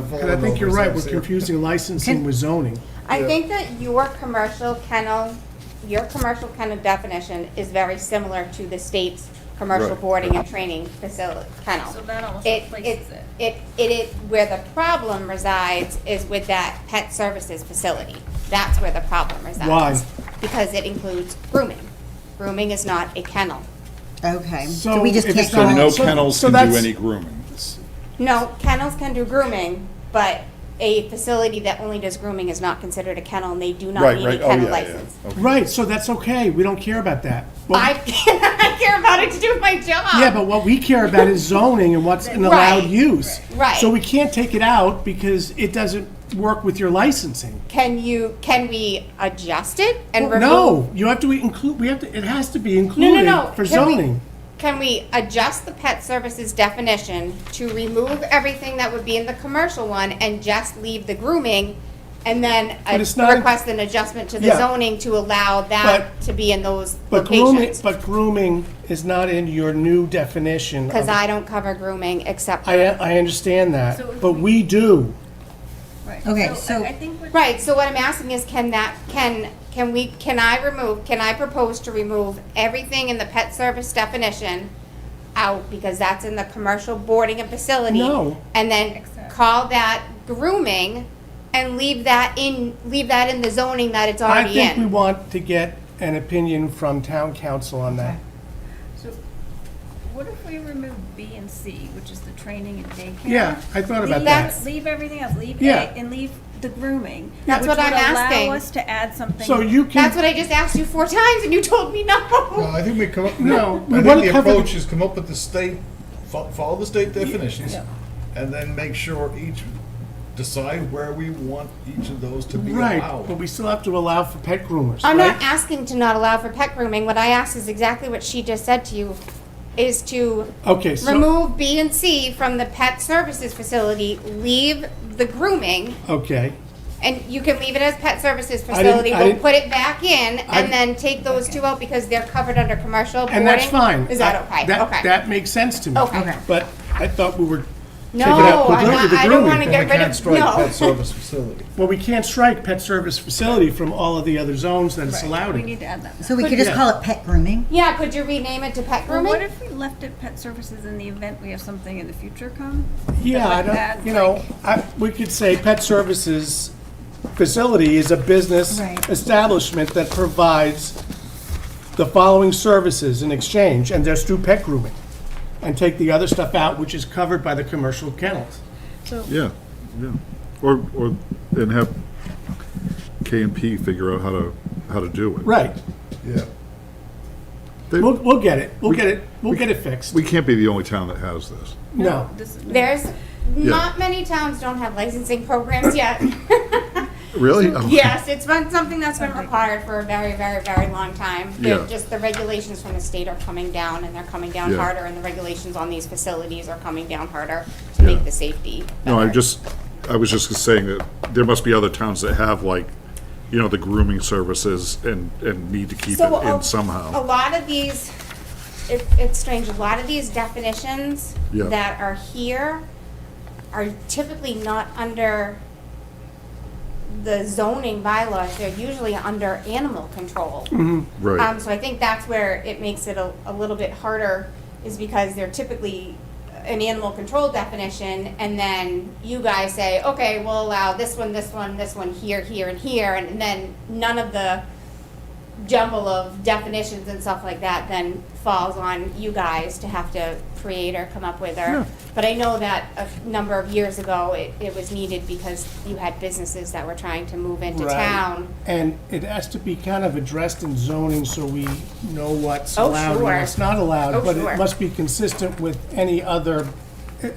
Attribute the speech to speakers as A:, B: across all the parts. A: Because I think you're right, we're confusing licensing with zoning.
B: I think that your commercial kennel, your commercial kennel definition is very similar to the state's commercial
C: Right.
B: boarding and training facility, kennel.
D: So that almost
B: It,
D: replaces
B: it,
D: it.
B: it, it is, where the problem resides is with that pet services facility. That's where the problem resides.
A: Why?
B: Because it includes grooming. Grooming is not a kennel.
E: Okay,
A: So
E: so we just
A: if
E: can't
A: it's not-
E: call
C: So no
E: it,
A: So-
C: kennels
A: so
C: can do
A: that's-
C: any grooming.
B: No, kennels can do grooming, but a facility that only does grooming is not considered a kennel, and they do not
C: Right,
B: need a
C: right, oh,
B: kennel
C: yeah, yeah.
B: license.
C: Okay.
A: Right, so that's okay, we don't care about that. Well,
B: I, I care about it to do my job.
A: Yeah, but what we care about is zoning and what's an allowed
B: Right,
A: use.
B: right.
A: So we can't take it out because it doesn't work with your licensing.
B: Can you, can we adjust it and remove?
A: No, you have to include, we have to, it has to be
B: No, no,
A: included
B: no.
A: for
B: Can we-
A: zoning.
B: Can we adjust the pet services definition to remove everything that would be in the commercial one and just leave the grooming? And then uh,
A: But it's not-
B: request an adjustment to the
A: Yeah.
B: zoning to allow that
A: But-
B: to be in those
A: But grooming,
B: locations?
A: but grooming is not in your new definition. of-
B: Because I don't cover grooming except,
A: I, I understand that,
D: So if
A: but we do.
D: Right.
E: Okay, so-
D: I I think what
B: right, so what I'm asking is can that, can, can we, can I remove, can I propose to remove everything in the pet service definition out because that's in the commercial boarding and facility?
A: No.
B: And then
D: Except-
B: call that grooming and leave that in, leave that in the zoning that it's
A: I
B: already
A: think we
B: in.
A: want to get an opinion from town council on that.
D: So, what if we remove B and C, which is the training and daycare?
A: Yeah, I thought about
D: Leave-
A: that.
D: Leave everything else, leave A,
A: Yeah.
D: and leave the grooming.
B: That's what I'm
D: Which would
B: asking.
D: allow us to add something.
A: So you can.
B: That's what I just asked you four times and you told me
F: Well,
B: no.
F: Uh, I think we come up,
A: No,
F: no,
A: we
F: I
A: wanna
F: think the
A: cover the-
F: approach is come up with the state, fo- follow the state definitions, and then make sure each, decide where we want each of those to be
A: Right,
F: allowed.
A: but we still have to allow for pet groomers,
B: I'm not
A: right?
B: asking to not allow for pet grooming. What I asked is exactly what she just said to you, is to
A: Okay, so,
B: remove B and C from the pet services facility, leave the grooming,
A: okay.
B: and you can leave it as pet services
A: I didn't-
B: facility.
A: I
B: We'll
A: didn't-
B: put it back in
A: I-
B: and then take those two out because they're covered under commercial boarding.
A: And that's fine.
B: Is that
A: I-
B: okay?
A: That,
B: Okay.
A: that makes sense to me.
B: Okay. Okay.
A: But I thought we were taking
B: No,
A: out the
B: I'm
A: groom-
B: not-
A: the
B: I don't
A: grooming.
B: wanna get
F: We
B: rid
F: can't
B: of-
F: strike
B: no.
F: pet service facility.
A: Well, we can't strike pet service facility from all of the other zones that it's
D: Right,
A: allowed
D: we
A: in.
D: need to add that.
E: so we could just
A: Yeah.
E: call it pet grooming.
B: Yeah, could you rename it to pet
D: Well, what
B: grooming?
D: if we left it pet services in the event we have something in the future come?
A: Yeah, I
D: Like
A: don't,
D: that,
A: you know, I, we could say pet services facility is a business
E: Right.
A: establishment that provides the following services in exchange, and there's through pet grooming. And take the other stuff out, which is covered by the commercial kennels.
C: Yeah, yeah. Or, or, and have K and P figure out how to, how to do it.
A: Right.
F: Yeah.
C: They-
A: We'll, we'll get it. We'll get it. We'll get it fixed.
C: We can't be the only town that has this.
A: No.
D: This is-
B: There's, not many towns don't have licensing programs yet.
C: Really? Oh,
B: Yes, it's been something that's been required for a very, very, very long time. They're
C: Yeah.
B: Just the regulations from the state are coming down, and they're coming down
C: Yeah.
B: harder, and the regulations on these facilities are coming down harder to
C: Yeah.
B: make the safety
C: No, I'm
B: better.
C: just, I was just saying that there must be other towns that have like, you know, the grooming services and, and need to keep
B: So
C: it
B: a-
A: oh,
C: in somehow.
B: A lot of these, it, it's strange, a lot of these definitions
C: Yeah.
B: that are here are typically not under the zoning bylaws, they're usually under animal control.
C: Mm-hmm.
B: Um,
C: Right,
B: so I think that's where it makes it a, a little bit harder, is because they're typically an animal control definition, and then you guys say, okay, we'll allow this one, this one, this one, here, here, and here, and then none of the jumble of definitions and stuff like that then falls on you guys to have to create or come up with, or, but I know that a f- number of years ago, it, it was needed because you had businesses that were trying to move into
A: Right.
B: town.
A: And it has to be kind of addressed in zoning so we know what's
B: Oh,
A: allowed and
B: sure.
A: what's not allowed.
B: Oh,
A: But
B: sure.
A: it must be consistent with any other,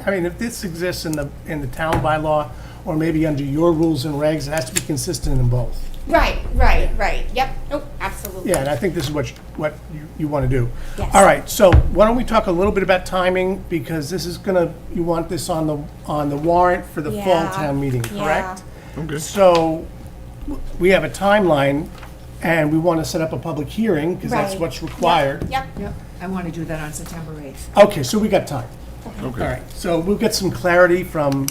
A: I mean, if this exists in the, in the town bylaw or maybe under your rules and regs, it has to be consistent in both.
B: Right, right, right, yep, nope, absolutely.
A: Yeah, and I think this is what, you- what you, you want to do.
B: Yes.
A: All right, so why don't we talk a little bit about timing, because this is gonna, you want this on the, on the warrant for the fall
B: Yeah,
A: town meeting,
B: yeah.
A: correct?
C: Okay.
A: So, w- we have a timeline, and we want to set up a public hearing, because that's
B: Right.
A: what's
B: Yep,
A: required.
B: Yep,
G: Yep, I want to do that on September 8th.
A: Okay, so we got time.
C: okay.
A: All right, so we'll get some clarity from